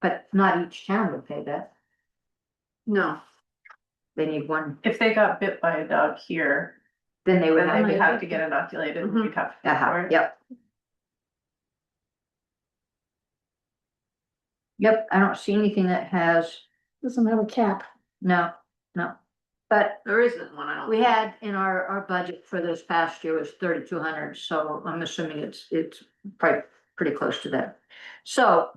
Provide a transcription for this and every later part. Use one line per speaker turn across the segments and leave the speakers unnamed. but not each town would pay that.
No.
They need one,
If they got bit by a dog here,
then they would
then they
have.
would have to get inoculated,
Mhm.
we'd have to pay for
Uh-huh,
it.
yep. Yep, I don't see anything that has,
Doesn't have a cap.
no, no. But
There isn't one, I don't.
we
think.
had in our, our budget for this past year was thirty-two hundred, so I'm assuming it's, it's probably pretty close to that. So,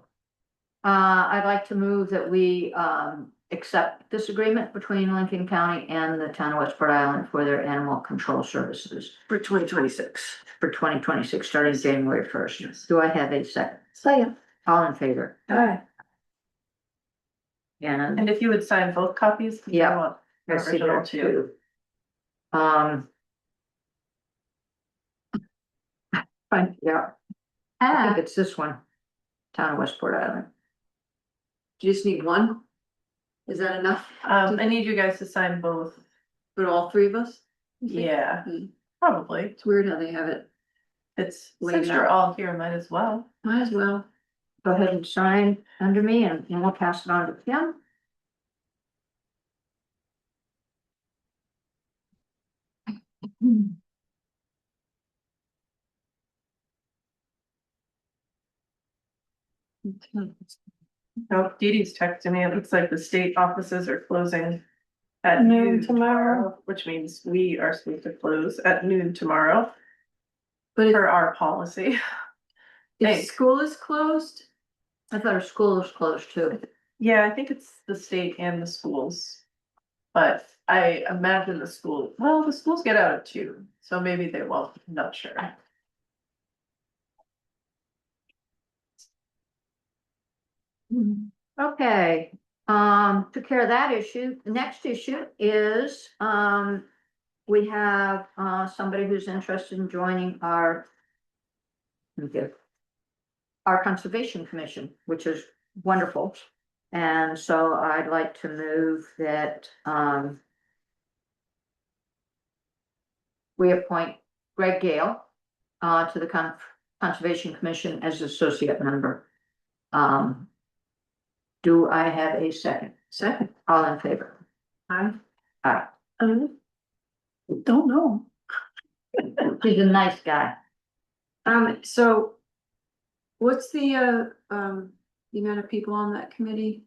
uh, I'd like to move that we, um, accept this agreement between Lincoln County and the town of Westport Island for their animal control services
For twenty twenty-six.
for twenty twenty-six, starting January first.
Yes.
Do I have a second?
Second.
All in favor?
Alright.
And
And if you would sign both copies. 'cause I
Yeah.
want the
I see
Original
that
too.
too. Um. Fine, yeah, I think it's this one. Town of Westport Island.
Do you just need one? Is that enough?
Um, I need you guys to sign both,
For all three of us?
yeah,
Mm.
probably,
It's weird how they have it.
it's,
Laid
since you're
out.
all here, might as well.
Might as well.
Go ahead and sign under me and and we'll pass it on to Kim. Hmm.
Oh, Dee Dee's texting me, it looks like the state offices are closing at
Noon
noon
tomorrow.
tomorrow, which means we are supposed to close at noon tomorrow
But if,
per our policy.
if
Thanks.
school is closed,
I thought our school was closed too.
Yeah, I think it's the state and the schools. But I imagine the school, well, the schools get out at two, so maybe they won't, I'm not sure.
Okay, um, took care of that issue. The next issue is, um, we have, uh, somebody who's interested in joining our let me get- our Conservation Commission, which is wonderful. And so I'd like to move that, um, we appoint Greg Gale, uh, to the Con- Conservation Commission as associate member. Um, do I have a second?
second,
All in favor?
I
Uh.
Aye.
Um, Don't know.
He's a nice guy.
Um, so what's the, uh, um, the amount of people on that committee?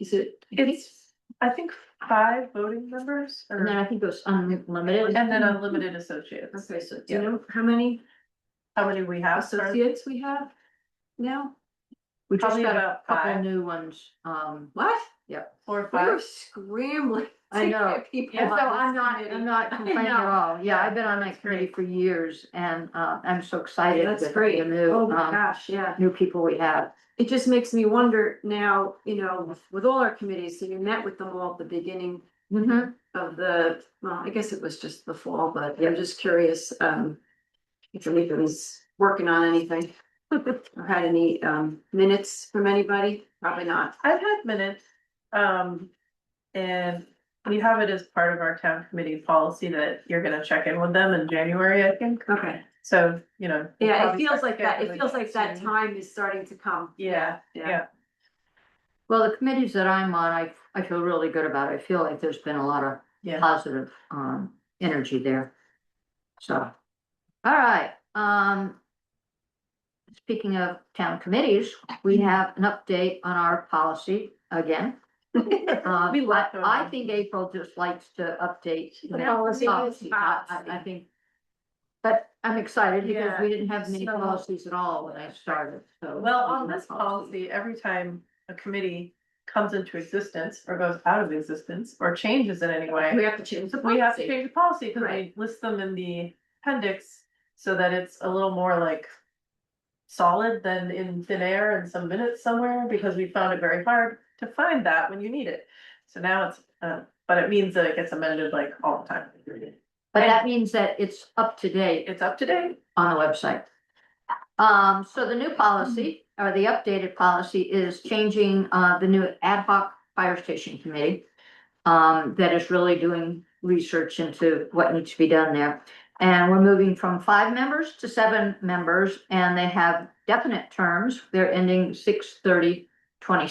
Is it?
It's, I think, five voting members
And then
or,
I think it was unlimited.
and then unlimited associates.
Okay, so do you know how many
How many we have? Sarah?
associates we have now?
We just
probably
got a
about
couple
five.
new ones. Um,
What?
Four or
We
five?
were scrambling.
I
to
know.
get people
and so
on this
I'm not,
committee.
I'm not
I
complaining at
know.
all. Yeah, I've been on that
That's
committee
great.
for years and, uh, I'm so excited.
That's
with
great.
The new,
Oh my
um,
gosh, yeah.
new people we have.
It just makes me wonder now, you know, with- with all our committees, so you met with them all at the beginning
Mhm.
of the, well, I guess it was just the fall, but
Yeah.
I'm just curious, um. If anybody's working on anything, or had any, um, minutes from anybody, probably not.
I've had minutes, um, and we have it as part of our town committee policy that you're gonna check in with them in January, I think.
Okay.
So, you know. we'll
Yeah, it
probably
feels
start
like that, it
scheduling
feels like that
soon.
time is starting to come.
Yeah, yeah.
Well, the committees that I'm on, I, I feel really good about. I feel like there's been a lot of
Yeah.
positive um energy there. So, all right, um. Speaking of town committees, we
Mm-hmm.
have an update on our policy again. Uh,
We
I,
left over.
I think April just likes to update.
The
policy.
I, I- I think. But I'm excited because
Yeah,
we didn't have many
so-
policies at all when I started, so.
Well, on this policy, every time a committee comes into existence or goes out of existence or changes in any way.
We have to change the
We have to
policy.
change the policy because we
Right.
list them in the appendix so that it's a little more like. Solid than in thin air in some minutes somewhere because we found it very hard to find that when you need it. So now it's, uh, but it means that it gets amended like all the time.
But that means that it's up to date
It's up to date.
on the website. Um, so the new policy, or the updated policy is changing, uh, the new ad hoc fire station committee. Um, that is really doing research into what needs to be done there. And we're moving from five members to seven members, and they have definite terms. They're ending 6/30, 26.